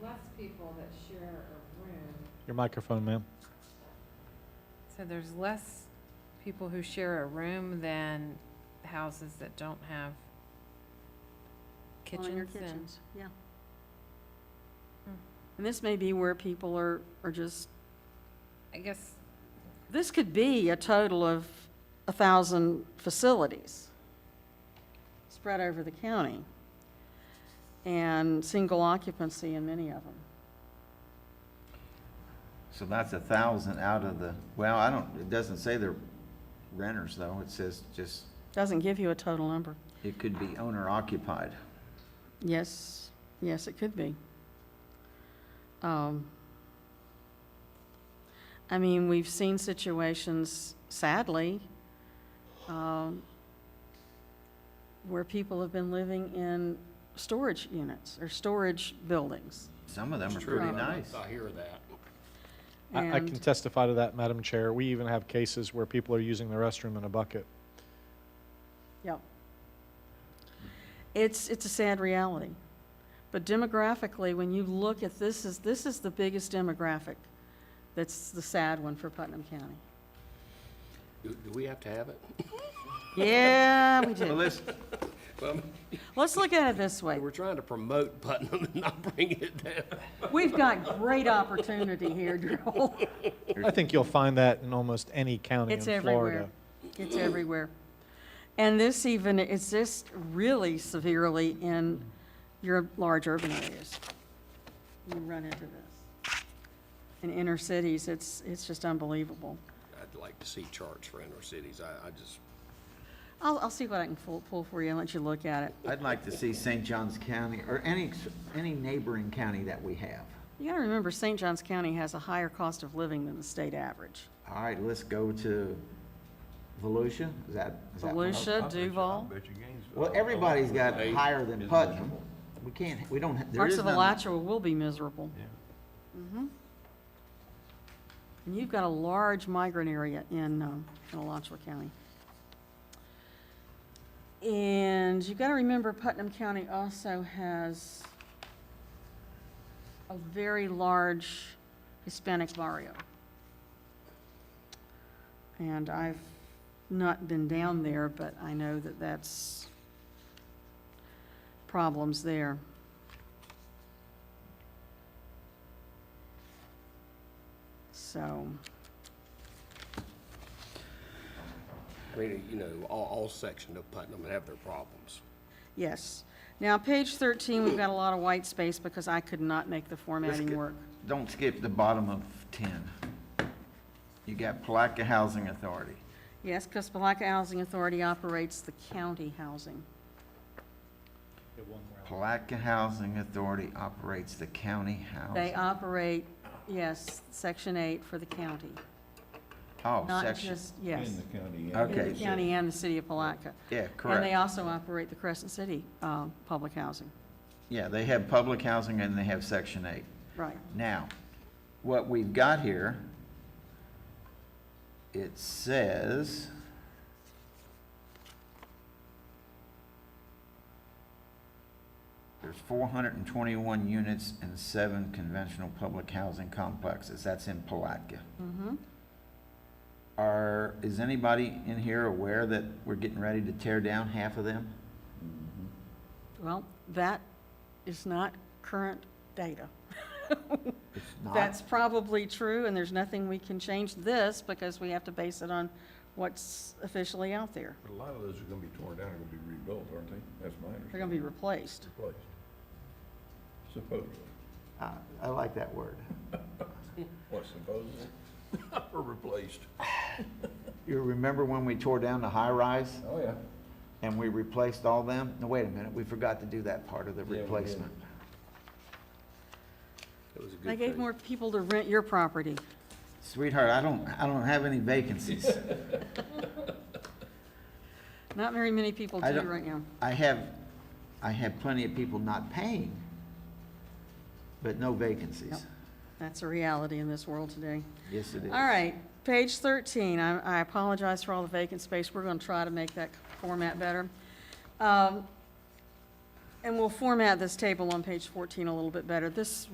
plus people that share a room. Your microphone, ma'am. So there's less people who share a room than houses that don't have Well, in your kitchens and. kitchens, Yeah. Hmm. And this may be where people are, are just, I guess, this could be a total of a thousand facilities spread over the county and single occupancy in many of them. So that's a thousand out of the, well, I don't, it doesn't say they're renters though, it says just, Doesn't give you a total number. it could be owner occupied. Yes, yes, it could be. Um, I mean, we've seen situations, sadly, um, where people have been living in storage units or storage buildings. Some of them are It's true. pretty Um, nice. I hear that. I, I can And- testify to that, Madam Chair. We even have cases where people are using the restroom in a bucket. Yep. It's, it's a sad reality. But demographically, when you look at this, is, this is the biggest demographic that's the sad one for Putnam County. Do, do we have to have it? Yeah, we Well, do. let's, Well, Let's look at it this way. we're trying to promote Putnam and not bring it down. We've got great opportunity here, Joel. I think you'll find that in almost any county in It's Florida. everywhere. It's everywhere. And this even, it's just really severely in your large urban areas. You run into this. In inner cities, it's, it's just unbelievable. I'd like to see charts for inner cities. I, I just, I'll, I'll see what I can pull, pull for you and let you look at it. I'd like to see St. John's County or any, any neighboring county that we have. You gotta remember, St. Johns County has a higher cost of living than the state average. All right, let's go to Volusia, is that? is that one? Volusia, Duval, Well, everybody's got Hey. higher than Putnam. We can't, we don't, ha- there parts is of none. Alachua will be miserable. Mhm. And you've got a large migrant area in, um, in Alachua County. And you gotta remember Putnam County also has a very large Hispanic barrio. And I've not been down there, but I know that that's problems there. So, I mean, you know, all, all sections of Putnam have their problems. yes. Now, page 13, we've got a lot of white space because I could not make the formatting get- work. Don't skip the bottom of ten. You got Palaca Housing Authority. Yes, because Palaca Housing Authority operates the county housing. Palaca Housing Authority operates the county They housing. operate, yes, Section 8 for the county, Oh, not section, just, yes. In the county. yeah. in the okay, county and the city of Palaca. yeah, And they correct. also operate the Crescent City uh, Public Housing, Yeah, they have public housing and they have section eight. right. Now, what we've got here, it says, there's 421 units and seven conventional public housing complexes. That's in Palatka. Mhm. Are, is anybody in here aware that we're getting ready to tear down half of them? Well, that is not current data. If not, That's probably true, and there's nothing we can change this, because we have to base it on what's officially out there. But a lot of those are gonna be torn down, and gonna be rebuilt, aren't they? That's my They're understanding. gonna be Mm-hmm. replaced. Replaced. Supposedly. I I like that word. What, supposedly? Or replaced? You remember when we tore down the high-rise? Oh, yeah. And we replaced all them? No, wait a minute, we forgot to do that part of the Yeah, we did. replacement. It was a good They gave thing. more people to rent your property. Sweetheart, I don't, I don't have any vacancies. Not very many people I do don't- right now. I have, I have plenty of people not paying, but no vacancies. That's a reality in this world today. Yes, it is. All right, page 13, I I apologize for all the vacant space, we're going to try to make that format better. Um, And we'll format this table on page 14 a little bit better. This